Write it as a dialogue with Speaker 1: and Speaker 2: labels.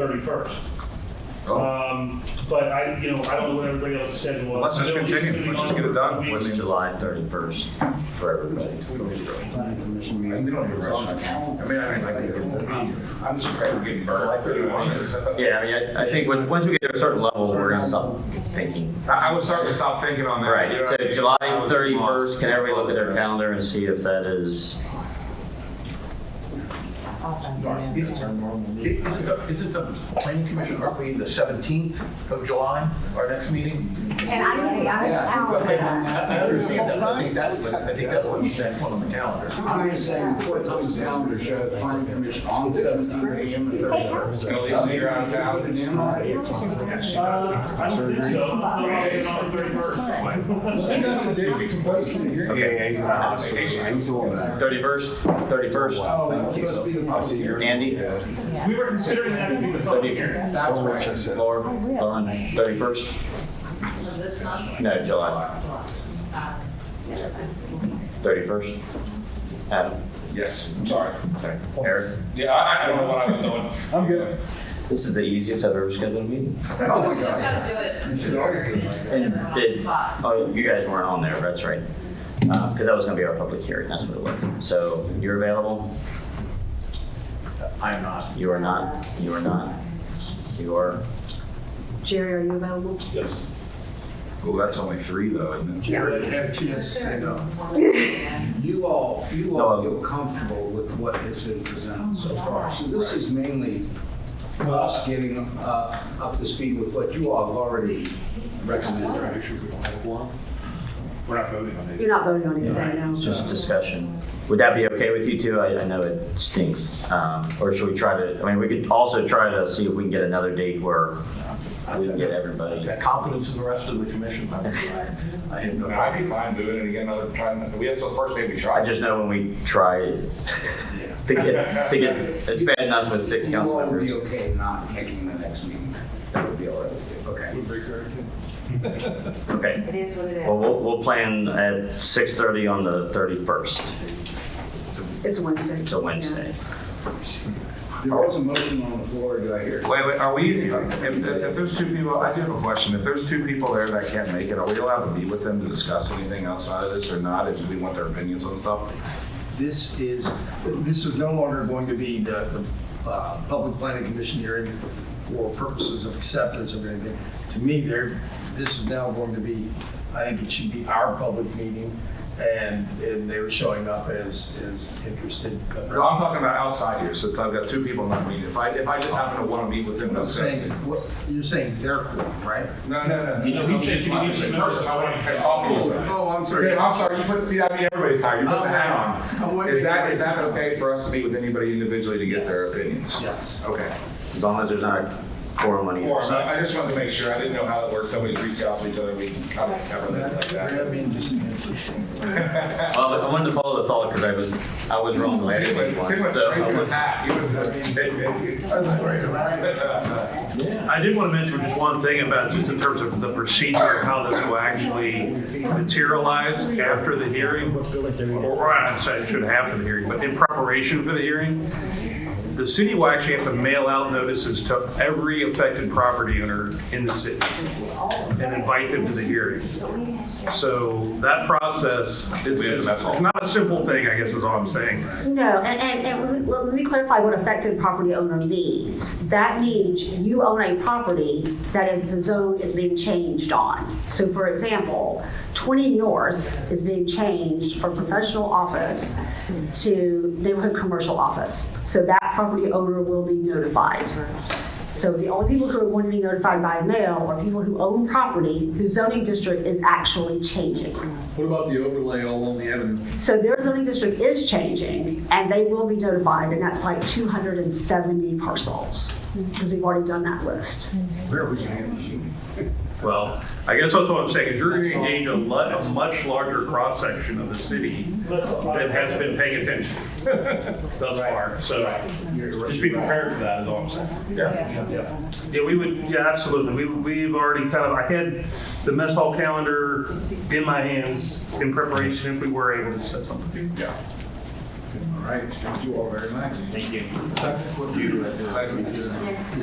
Speaker 1: 31st.
Speaker 2: Oh,
Speaker 1: Um, But I, you know, I don't know what everybody else's schedule is.
Speaker 2: Let's just
Speaker 1: Bill, he's
Speaker 2: continue,
Speaker 1: gonna be
Speaker 2: let's
Speaker 1: gone
Speaker 2: just get
Speaker 1: for
Speaker 2: it
Speaker 1: a
Speaker 2: done.
Speaker 1: couple
Speaker 2: Within
Speaker 1: weeks.
Speaker 2: July 31st
Speaker 3: Uh,
Speaker 2: for everybody.
Speaker 4: planning commission
Speaker 5: We
Speaker 4: meeting.
Speaker 5: don't need to rush. I mean, I mean, like,
Speaker 3: Um,
Speaker 5: it's- I'm just afraid we're getting burned. I
Speaker 2: Yeah, I mean, I, I think when, once we get to a certain level, we're gonna stop thinking.
Speaker 5: I would start to stop thinking on that. you know
Speaker 2: Right, so
Speaker 5: what I mean?
Speaker 2: July
Speaker 5: I was
Speaker 2: thirty-first, can everybody look at their
Speaker 5: lost.
Speaker 2: calendar and see if that is,
Speaker 6: Is
Speaker 3: Is it- is it the planning commission, are we the 17th of July, our next meeting?
Speaker 6: And I'm gonna be out of
Speaker 3: Okay,
Speaker 6: town.
Speaker 3: I I understand that, but I think that's what, I think that's what you said on the calendar.
Speaker 4: I'm just saying, put those calendar shows, planning commission on the seventeenth AM and thirty-first.
Speaker 5: And at least you're out of town.
Speaker 1: Uh, I don't think so. I'm not getting on the 31st.
Speaker 2: thirty-first, thirty-first?
Speaker 4: Oh,
Speaker 2: Andy,
Speaker 1: We were considering that to be the public hearing.
Speaker 2: Laura, Lauren, thirty-first? No, July. Thirty-first? Adam,
Speaker 5: Yes, I'm sorry.
Speaker 2: Eric,
Speaker 5: Yeah, I, I don't know what I was doing. I'm good.
Speaker 2: this is the easiest I've ever scheduled a meeting. And did, oh, you guys weren't on there, that's right. Because that was going to be our public hearing, that's what it was. So you're available? I'm not. You are not, you are not. You are,
Speaker 6: Jerry, are you available?
Speaker 5: Yes.
Speaker 2: well, that's only three though, isn't it?
Speaker 4: Jared had a chance to say no. You all, you
Speaker 2: No.
Speaker 4: all feel comfortable with what has been presented so far. So this is mainly us getting uh, up to speed with what you all have already recommended.
Speaker 5: We're not voting on it.
Speaker 6: You're not voting on it right now.
Speaker 2: It's just discussion. Would that be okay with you two? I, I know it stinks. Um, Or should we try to, I mean, we could also try to see if we can get another date where we can get everybody.
Speaker 3: Got confidence in the rest of the commission. I I have no.
Speaker 5: I'd be fine doing it again another time. We have, so first maybe
Speaker 2: I
Speaker 5: try.
Speaker 2: just know when we try to get, to get, it's bad enough with six
Speaker 4: You
Speaker 2: council
Speaker 4: all would
Speaker 2: members.
Speaker 4: be okay not making the next meeting. That would be all right with you, okay?
Speaker 2: Okay.
Speaker 6: It is what it
Speaker 2: Well, we'll, we'll plan at 6:30 on the 31st.
Speaker 6: It's a Wednesday.
Speaker 2: It's a Wednesday.
Speaker 4: There was a motion on the floor, do I hear?
Speaker 2: Wait, wait,
Speaker 5: Are we, if, if there's two people, I do have a question. If there's two people there that can't make it, are we allowed to meet with them to discuss anything outside of this or not? If we want their opinions on stuff?
Speaker 3: This is, this is no longer going to be the, the uh, public planning commission hearing for purposes of acceptance of anything. To me, there, this is now going to be, I think it should be our public meeting, and, and they were showing up as, as interested.
Speaker 5: No, I'm talking about outside here, since I've got two people not meeting. If I, if I just happen to want to meet with them,
Speaker 3: I'm
Speaker 5: that's
Speaker 3: saying,
Speaker 5: it.
Speaker 3: what- you're saying their quorum, right?
Speaker 5: No, no, no.
Speaker 1: You should- you should- you should-
Speaker 5: In person, I want to talk to them.
Speaker 3: Oh, I'm
Speaker 5: Sorry, I'm sorry, you put, see, I mean, everybody's tired, you put the hat
Speaker 3: I'm
Speaker 5: on.
Speaker 3: waiting.
Speaker 5: Is that, is that okay for us to meet with anybody individually to get their opinions?
Speaker 3: Yes.
Speaker 5: Okay.
Speaker 2: As long as there's not a quorum on either
Speaker 5: Or,
Speaker 2: side.
Speaker 5: I I just wanted to make sure, I didn't know how it worked, nobody's reached out to each other, we can kind of cover that like that.
Speaker 3: That'd be interesting.
Speaker 2: Well, I wanted to follow the thought because I was, I was wrong last
Speaker 5: Too
Speaker 2: week
Speaker 5: much, too much
Speaker 2: once, so
Speaker 5: drink
Speaker 2: I
Speaker 5: in the
Speaker 2: was.
Speaker 5: hat, you would have.
Speaker 7: I did want to mention just one thing about, just in terms of the procedure, of how this will actually materialize after the hearing. Or I say it should happen the hearing, but in preparation for the hearing, the city will actually have to mail out notices to every affected property owner in the city and invite them to the hearing. So that process is, is- it's not a simple thing, I guess is all I'm saying.
Speaker 6: No, and, and, and let me- let me clarify what affected property owner means. That means you own a property that is, the zone is being changed on. So for example, 20 North is being changed from professional office to neighborhood commercial office. So that property owner will be notified. So the only people who are going to be notified by mail are people who own property whose zoning district is actually changing.
Speaker 8: What about the overlay all on the avenue?
Speaker 6: So their zoning district is changing, and they will be notified, and that's like 270 parcels, because we've already done that list.
Speaker 7: Well, I guess that's what I'm saying, is you're going to engage a lot, a much larger cross-section of the city
Speaker 1: Let's apply
Speaker 7: that has been paying attention thus far, so just be prepared for that, is all I'm saying. Yeah, we would, yeah, absolutely. We, we've already kind of, I had the mess hall calendar in my hands in preparation if we were able to set something.
Speaker 3: All right, thank you all very much.
Speaker 1: Thank you.
Speaker 5: You-